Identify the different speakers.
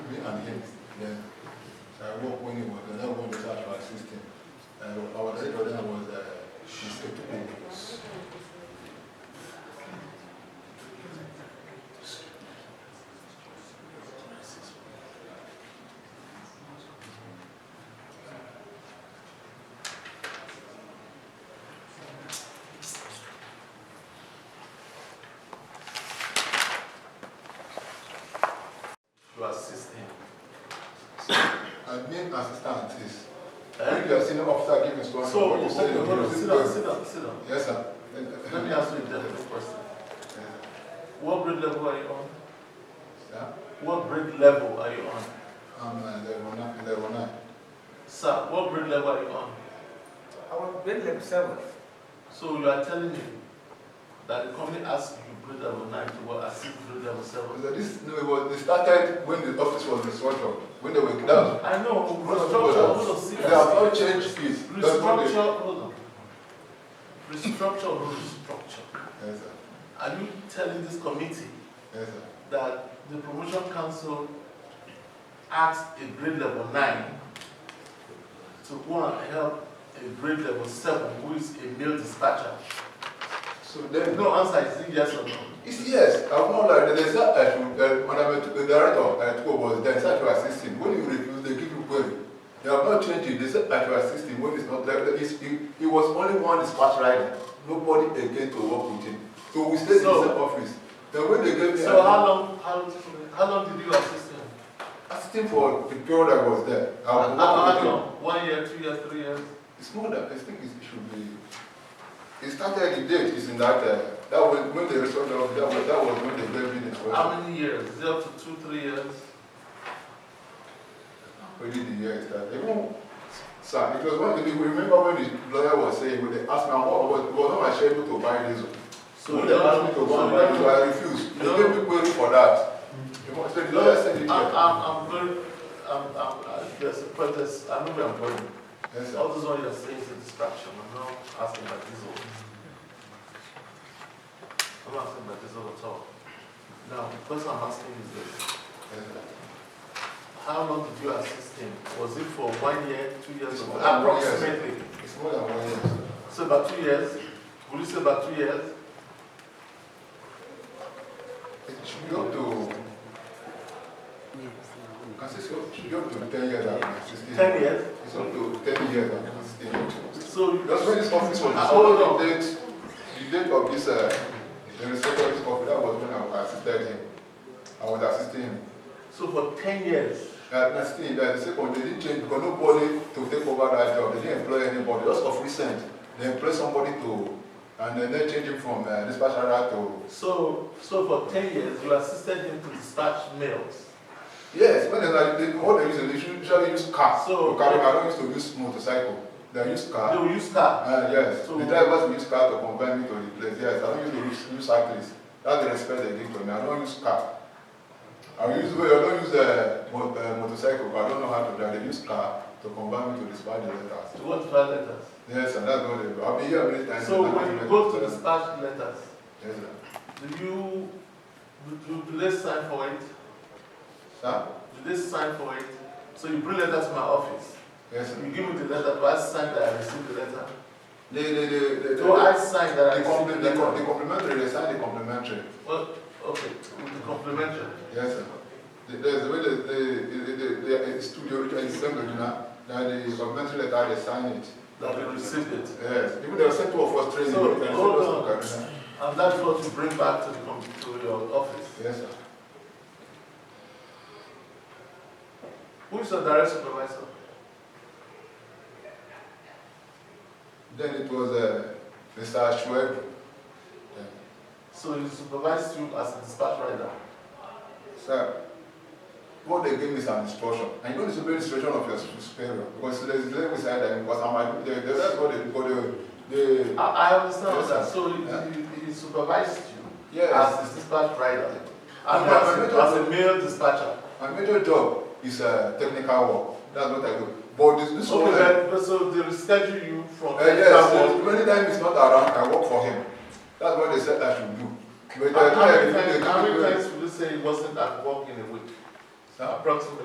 Speaker 1: me and him then. So I worked when he was, and I worked as our assistant. And our director then was, uh, Mr. Tupu.
Speaker 2: You are 16.
Speaker 1: And main assistant is, when you are senior officer give instruction,
Speaker 2: So,
Speaker 1: what
Speaker 2: okay,
Speaker 1: you say, you
Speaker 2: hold on,
Speaker 1: do.
Speaker 2: sit down, sit down, sit down.
Speaker 1: Yes, sir.
Speaker 2: Let me ask you a different question. What grade level are you on?
Speaker 1: Yeah,
Speaker 2: What grade level are you on?
Speaker 1: I'm, uh, level nine, level nine.
Speaker 2: Sir, what grade level are you on?
Speaker 3: Our grade level seven.
Speaker 2: So you are telling me that the company asked you grade level 9 to what as if grade level 7?
Speaker 1: So this, no, it was, they started when the office was restructured, when they were, that was
Speaker 2: I know, restructure, hold on, see
Speaker 1: They have all changed it. That's what they-
Speaker 2: Restructure, hold on. Restructure, or no restructure.
Speaker 1: Yes, sir.
Speaker 2: Are you telling this committee
Speaker 1: Yes, sir.
Speaker 2: that the promotion council asked a grade level nine to go and help a grade level seven who is a male dispatcher.
Speaker 1: So
Speaker 2: There is
Speaker 1: then, no,
Speaker 2: no answer, is it yes or no?
Speaker 1: it's yes. I'm not like there's that I should, uh, when I'm at- the director at school was there, such to assist him. When you refuse, they give you query. They have not changed it. They said I should assist him when it's not like that. It's, it, it was only one dispatch rider. Nobody again to work with him. So we stayed
Speaker 2: So-
Speaker 1: in the same office. Then when they gave me,
Speaker 2: So how long, how, how long did you assist him?
Speaker 1: assist him for the period I was there. I
Speaker 2: How
Speaker 1: was
Speaker 2: how
Speaker 1: working with him.
Speaker 2: long? One year, two years, three years?
Speaker 1: It's more than, I think it should be, it started, the date is in that, uh, that was when they resolved, of- that was, that was when they gave me the question.
Speaker 2: How many years? Zero to two, three years?
Speaker 1: When did the year start? Even, sir, it was one of the, remember when the lawyer was saying, when they asked me, what was, was not my schedule to buy diesel?
Speaker 2: So
Speaker 1: When
Speaker 2: you
Speaker 1: they asked me
Speaker 2: don't-
Speaker 1: to
Speaker 2: so
Speaker 1: go and
Speaker 2: you
Speaker 1: buy
Speaker 2: don't-
Speaker 1: diesel, I refused. They
Speaker 2: you
Speaker 1: gave me query for that. You know, So the lawyer said, it
Speaker 2: I'm,
Speaker 1: here.
Speaker 2: I'm, I'm very, I'm, I'm, I- there's a protest, I know where I'm going.
Speaker 1: Yes, sir.
Speaker 2: All this one you're saying is a distraction. I'm not asking about this all. I'm not asking about this all at all. Now, the question I'm asking is this.
Speaker 1: Yes, sir.
Speaker 2: How long did you assist him? Was it for one year, two years,
Speaker 1: It's for
Speaker 2: or
Speaker 1: one year, sir.
Speaker 2: approximately?
Speaker 1: It's more than one year, sir.
Speaker 2: So about two years? Would you say about two years?
Speaker 1: It should be up to, I say, so it should be up to ten years, I'm assisting.
Speaker 2: Ten years?
Speaker 1: It's up to ten years, I'm assisting.
Speaker 2: So you
Speaker 1: That's when this office was
Speaker 2: Ah, hold
Speaker 1: discovered,
Speaker 2: on.
Speaker 1: the date, the date of this, uh, the reception of this office, that was when I assisted him. I was assisting him. Uh,
Speaker 2: so for ten years.
Speaker 1: That, that's the, that the second, they didn't change because nobody to take over that job, they didn't employ anybody, just of recent. They employed somebody to, and then they changed him from uh, dispatch rider to,
Speaker 2: So so for ten years you assisted him to dispatch mails.
Speaker 1: yes, when they, like, they, what they use, they should usually use car.
Speaker 2: So-
Speaker 1: To carry, I don't used to use motorcycle, they use
Speaker 2: They
Speaker 1: car.
Speaker 2: will use car.
Speaker 1: Uh, yes,
Speaker 2: So-
Speaker 1: the drivers use car to convey me to the place. Yes, I don't use use, use cyclists. That's the respect they give to me. I don't use car. I use well, I don't use a uh, mo- uh, motorcycle. but I don't know how to drive. They use car to convey me to dispatch the letters.
Speaker 2: To what to write letters?
Speaker 1: Yes, and that's what they do. I've been here many times.
Speaker 2: So
Speaker 1: and I
Speaker 2: when you
Speaker 1: don't
Speaker 2: go
Speaker 1: know.
Speaker 2: to dispatch letters,
Speaker 1: yes, sir.
Speaker 2: do you do, do, do they sign for it?
Speaker 1: Huh?
Speaker 2: Do they sign for it? So you bring letter to my office.
Speaker 1: Yes, sir.
Speaker 2: You give me the letter, do I sign that I received the letter?
Speaker 1: They, they, they, they,
Speaker 2: Do I sign that I
Speaker 1: the, compli-
Speaker 2: received
Speaker 1: the,
Speaker 2: the
Speaker 1: com- the
Speaker 2: letter?
Speaker 1: complimentary, they sign the complimentary.
Speaker 2: Well, okay, with the complimentary.
Speaker 1: Yes, sir. The, there's the way the, the, the, the, the, the studio, it's the same, you know, that the complimentary letter, they sign it.
Speaker 2: That you received it.
Speaker 1: Yes, even the sector of us training.
Speaker 2: So,
Speaker 1: we can send
Speaker 2: hold
Speaker 1: us
Speaker 2: on.
Speaker 1: to Kaduna.
Speaker 2: And that's what you bring back to the com- to your office.
Speaker 1: Yes, sir.
Speaker 2: Who is your direct supervisor?
Speaker 1: Then it was uh, Mr. Ashweb. Then,
Speaker 2: So he supervised you as a dispatch rider.
Speaker 1: Sir, what they gave me is an instruction. And you know, it's a very instruction of your superior. Because there's level side them, because I'm like, they, they, that's what they, because they, they
Speaker 2: I, I understand
Speaker 1: Yes,
Speaker 2: that.
Speaker 1: sir.
Speaker 2: So he,
Speaker 1: Yeah.
Speaker 2: he, he supervised you.
Speaker 1: yes.
Speaker 2: as a dispatch rider.
Speaker 1: And
Speaker 2: And
Speaker 1: as
Speaker 2: as,
Speaker 1: a-
Speaker 2: a male dispatcher.
Speaker 1: My major job is uh, technical work. That's what I do. But this, this one, uh,
Speaker 2: so they reschedule you from
Speaker 1: uh, yes, so many times he's not around, I work for him. That's what they said I should do. But uh,
Speaker 2: How
Speaker 1: they-
Speaker 2: many
Speaker 1: they-
Speaker 2: times,
Speaker 1: they-
Speaker 2: how many times would you say he wasn't at work in a week?
Speaker 1: Sir?
Speaker 2: Approximately.